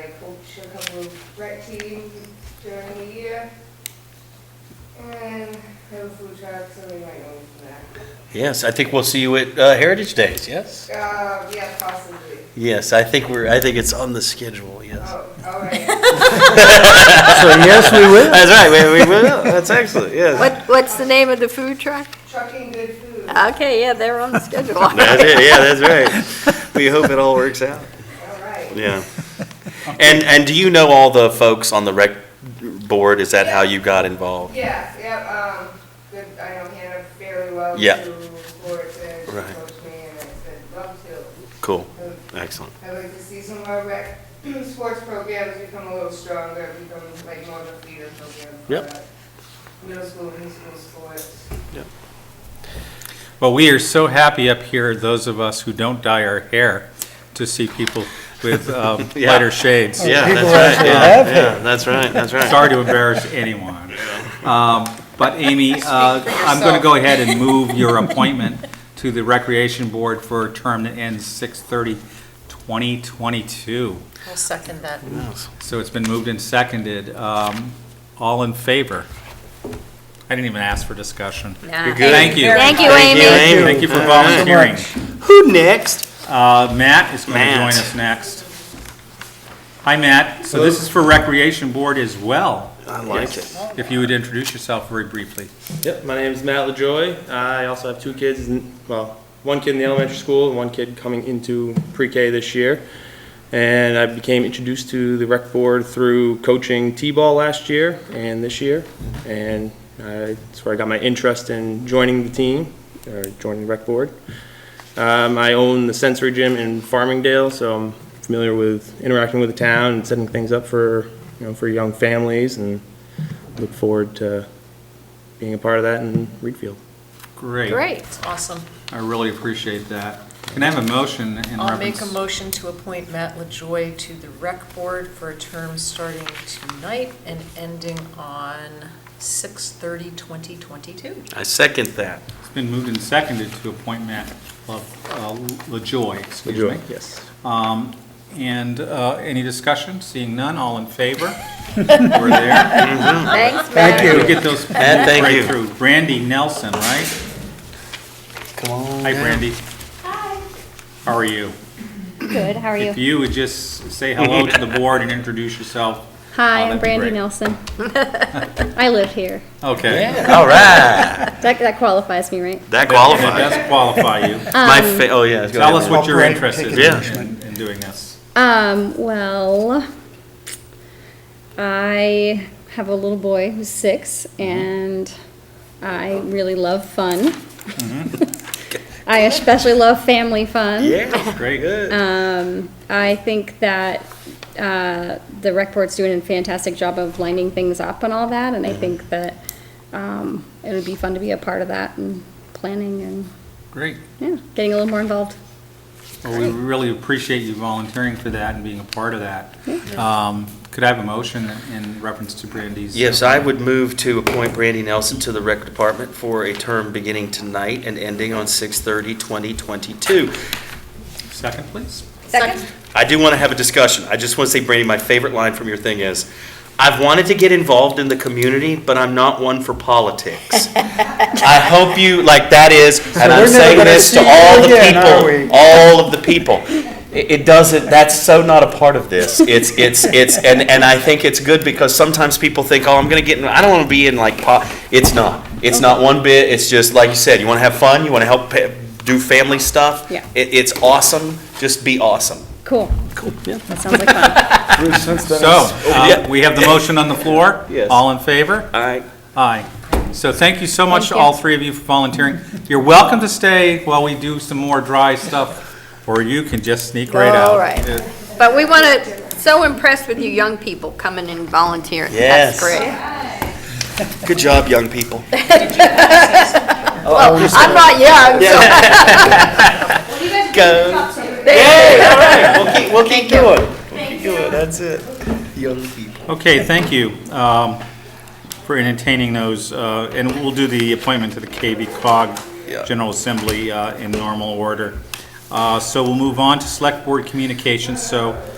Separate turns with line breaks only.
a couple of rec teams during the year. And have a food truck, so we might go for that.
Yes, I think we'll see you at uh, Heritage Days, yes?
Uh, yeah, possibly.
Yes, I think we're, I think it's on the schedule, yes.
Oh, all right.
So yes, we will. That's right, we, we will, that's excellent, yes.
What, what's the name of the food truck?
Trucking good food. All
Okay, yeah, they're on the schedule.
That's it, yeah, that's right. We hope it all works out.
right.
Yeah. And, and do you know all the folks on the rec board? Is that how you got involved?
Yeah, yeah, um, good, I know Hannah fairly well.
Yeah.
Through sports and she
Right.
coached me and I said, love to.
Cool,
So
excellent.
I'd like to see some of our rec, sports programs become a little stronger, become like more of a feeder program. for
Yep.
our Middle school, and school sports.
Well, we are so happy up here, those of us who don't dye our hair, to see people with um,
Yeah.
lighter shades.
Yeah,
people
that's right,
actually
yeah,
have
yeah, that's right, that's right.
Sorry to embarrass anyone. Um, But Amy, uh, I'm going to go ahead and move your appointment to the Recreation Board for a term that ends 6/30/2022.
I'll second that.
Yes.
So it's been moved and seconded. Um, All in favor? I didn't even ask for discussion.
Nah.
good.
Thank you.
Thank you,
Thank you,
Amy.
Amy.
Thank you for
All right.
volunteering.
Who next?
Uh, Matt is going to
Matt.
join us next. Hi, Matt. So this is for Recreation Board as well.
I like it.
If you would introduce yourself very briefly.
Yep, my name is Matt LaJoy. I also have two kids, in- well, one kid in the elementary school and one kid coming into pre-K this year. And I became introduced to the rec board through coaching T-ball last year and this year. And I- that's where I got my interest in joining the team, or joining the rec board. Um, I own the sensory gym in Farmingdale, so I'm familiar with interacting with the town and setting things up for, you know, for young families and look forward to being a part of that in Reedfield.
Great.
Great.
Awesome.
I really appreciate that. Can I have a motion in
I'll make a
reference?
motion to appoint Matt LaJoy to the rec board for a term starting tonight and ending on 6/30/2022.
I second that.
It's been moved and seconded to appoint Matt Lo- uh, LaJoy, excuse me.
Yes.
Um, And uh, any discussion? Seeing none, all in favor? We're there.
Thanks,
Thank
Matt.
you.
We get those
And thank
right
you.
through. Brandy Nelson, right?
Come on.
Hi, Brandy. How are you?
Good, how are you?
If you would just say hello to the board and introduce yourself.
Hi,
that'd
I'm
be
Brandy
great.
Nelson. I live here.
Okay.
All right,
That, that qualifies me, right?
that
It
qualifies.
does qualify you.
My fa, oh, yeah. it's gonna
Tell
be
us
one.
what your
Brand
interest is
Yeah.
in- in in doing this.
Um, well, I have a little boy who's six, and I really love fun. I especially love family fun.
Yeah,
Great.
Um, I think that uh, the rec board's doing a fantastic job of lining things up and all that, and I think that um, it would be fun to be a part of that and planning and
Great.
yeah, getting a little more involved.
Well, we really appreciate you volunteering for that and being a part of that. Um, Could I have a motion in reference to Brandy's?
Yes, I would move to appoint Brandy Nelson to the rec department for a term beginning tonight and ending on 6/30/2022.
Second, please.
Second.
I do want to have a discussion. I just want to say, Brandy, my favorite line from your thing is, I've wanted to get involved in the community, but I'm not one for politics. I hope you, like, that is, and I'm
we're never
saying
gonna
this to
see you
all the
again, are we?
people, all of the people. It, it doesn't, that's so not a part of this. It's, it's, it's, and, and I think it's good because sometimes people think, oh, I'm gonna get in, I don't wanna be in like po, it's not. It's not one bit, it's just, like you said, you wanna have fun, you wanna help pa- do family stuff.
Yeah.
It, it's awesome, just be awesome.
Cool. Cool. That sounds like fun.
Bruce, since then,
So,
it's-
uh, we have the motion on the floor.
Oh, Yes.
All in favor?
All right.
Aye. So thank you so much,
Thank you.
all three of you, for volunteering. You're welcome to stay while we do some more dry stuff, or you can just sneak right out. Uh,
All right.
It-
But we want to, so impressed with you young people coming and volunteering.
Yes.
That's great.
Good job, young people.
Well, I'm not young,
Go.
so
Yay, all right, we'll keep, we'll keep going. We'll keep going, that's it. Young people.
Okay, thank you um, for entertaining those, uh, and we'll do the appointment to the KB
Yeah.
cog General Assembly uh, in normal order. Uh, So we'll move on to Select Board Communications, so